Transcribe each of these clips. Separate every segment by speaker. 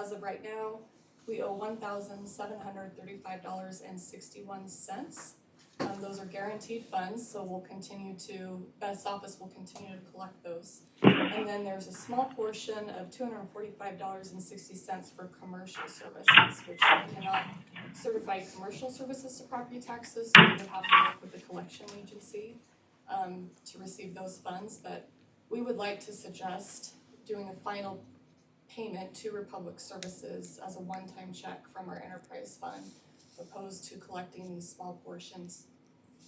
Speaker 1: as of right now, we owe one thousand seven hundred thirty-five dollars and sixty-one cents. Um, those are guaranteed funds, so we'll continue to, best office will continue to collect those. And then there's a small portion of two hundred and forty-five dollars and sixty cents for commercial services, which we cannot certify commercial services to property taxes, so we would have to work with the collection agency um, to receive those funds, but we would like to suggest doing a final payment to Republic Services as a one-time check from our enterprise fund, opposed to collecting these small portions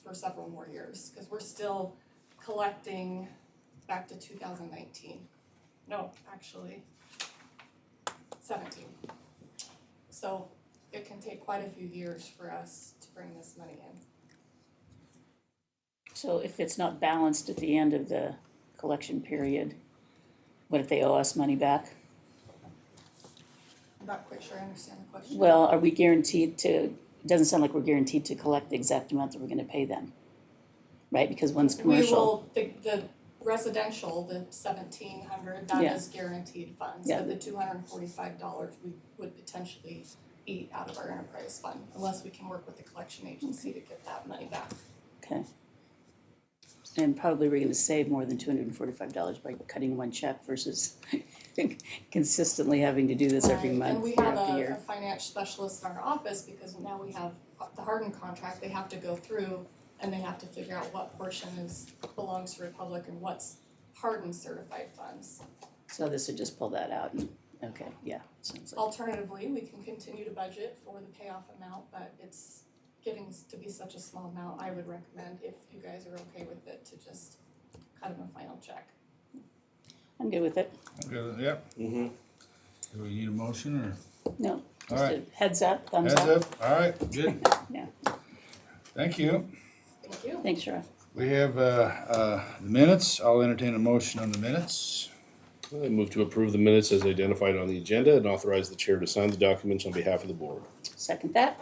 Speaker 1: for several more years, because we're still collecting back to two thousand nineteen. No, actually, seventeen. So it can take quite a few years for us to bring this money in.
Speaker 2: So if it's not balanced at the end of the collection period, what if they owe us money back?
Speaker 1: I'm not quite sure I understand the question.
Speaker 2: Well, are we guaranteed to, it doesn't sound like we're guaranteed to collect the exact amount that we're gonna pay them. Right, because one's
Speaker 1: We
Speaker 2: commercial,
Speaker 1: will, the, the residential, the seventeen hundred, that
Speaker 2: Yeah.
Speaker 1: is guaranteed funds.
Speaker 2: Yeah.
Speaker 1: But the two hundred and forty-five dollars, we would potentially eat out of our enterprise fund unless we can work with the collection agency to get that money back.
Speaker 2: okay. And probably we're gonna save more than two hundred and forty-five dollars by cutting one check versus consistently having to do this every
Speaker 1: Right,
Speaker 2: month, year
Speaker 1: And
Speaker 2: after
Speaker 1: we have a, a
Speaker 2: year.
Speaker 1: financial specialist in our office, because now we have the Hardin contract, they have to go through and they have to figure out what portion is, belongs to Republic and what's Hardin certified funds.
Speaker 2: So this would just pull that out and, okay, yeah, sounds like,
Speaker 1: Alternatively, we can continue to budget for the payoff amount, but it's getting s- to be such a small amount, I would recommend if you guys are okay with it, to just cut him a final check.
Speaker 2: I'm good with it.
Speaker 3: Good, Yep. Do we need a motion or?
Speaker 2: No,
Speaker 3: All
Speaker 2: just a
Speaker 3: right.
Speaker 2: heads up, thumbs
Speaker 3: Heads
Speaker 2: up.
Speaker 3: up, all right, good,
Speaker 2: Yeah,
Speaker 3: thank you.
Speaker 1: Thank you.
Speaker 2: thanks, Shara.
Speaker 3: We have, uh, uh, the minutes, I'll entertain a motion on the minutes.
Speaker 4: I move to approve the minutes as identified on the agenda and authorize the chair to sign the documents on behalf of the board.
Speaker 2: Second that.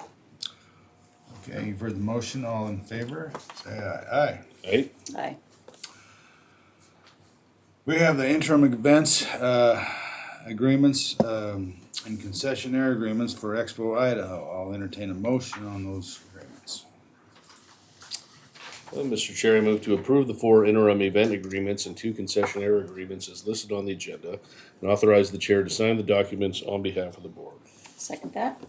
Speaker 3: Okay, you've heard the motion, all in favor, say aye, aye.
Speaker 4: Right?
Speaker 2: Aye.
Speaker 3: We have the interim events, uh, agreements, um, and concessionaire agreements for Expo Idaho. I'll entertain a motion on those agreements.
Speaker 4: Uh, Mr. Chair, I move to approve the four interim event agreements and two concessionaire agreements as listed on the agenda and authorize the chair to sign the documents on behalf of the board.
Speaker 2: Second that.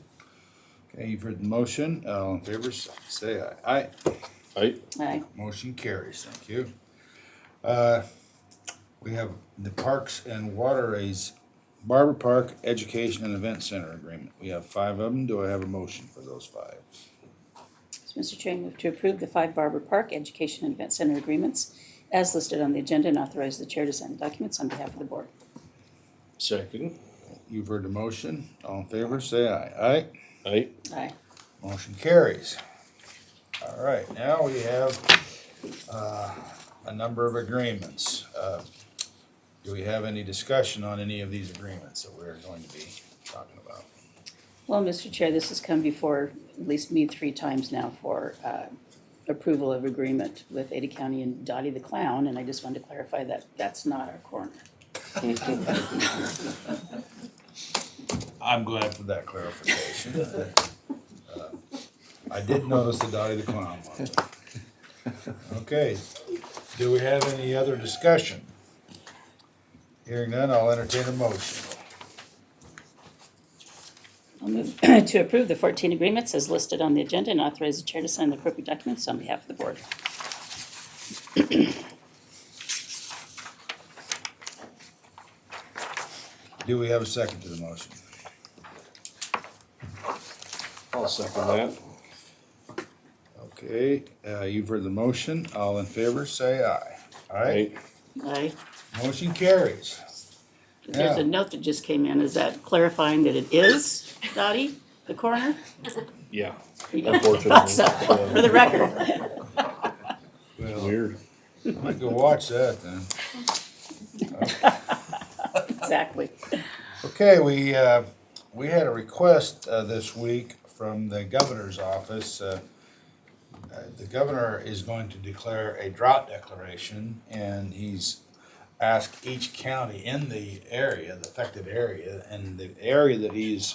Speaker 3: Okay, you've heard the motion, all in favor, say aye, aye.
Speaker 4: Aye.
Speaker 2: Aye.
Speaker 3: Motion carries, thank you. Uh, We have the Parks and Waterways Barber Park Education and Event Center Agreement. We have five of them. Do I have a motion for those five?
Speaker 2: So, Mr. Chair, I move to approve the five Barber Park Education and Event Center agreements as listed on the agenda and authorize the chair to sign the documents on behalf of the board.
Speaker 4: Second.
Speaker 3: You've heard the motion. All in favor, say aye. Aye.
Speaker 4: Aye.
Speaker 2: Aye.
Speaker 3: Motion carries. All right, now we have uh, a number of agreements. Uh, Do we have any discussion on any of these agreements that we're going to be talking about?
Speaker 2: Well, Mr. Chair, this has come before at least me three times now for uh, approval of agreement with Ada County and Dottie the Clown, and I just wanted to clarify that that's not our corner.
Speaker 3: I'm glad for that clarification. Uh, I did notice the Dottie the Clown one. Okay, do we have any other discussion? Hearing none, I'll entertain a motion.
Speaker 2: I'll move to approve the 14 agreements as listed on the agenda and authorize the chair to sign the appropriate documents on behalf of the board.
Speaker 3: Do we have a second to the motion?
Speaker 4: I'll second that.
Speaker 3: Okay, uh, you've heard the motion, all in favor, say aye.
Speaker 4: Aye.
Speaker 3: Aye,
Speaker 2: Aye.
Speaker 3: motion carries.
Speaker 2: There's
Speaker 3: Yeah.
Speaker 2: a note that just came in, is that clarifying that it is Dottie, the coroner?
Speaker 4: Yeah.
Speaker 2: You don't thought
Speaker 4: Unfortunately.
Speaker 2: so, for the record.
Speaker 3: Well,
Speaker 4: Weird.
Speaker 3: I might go watch that then.
Speaker 2: Exactly.
Speaker 3: Okay, we, uh, we had a request uh, this week from the governor's office. uh, uh, The governor is going to declare a drought declaration, and he's ask each county in the area, the affected area, and the area that he's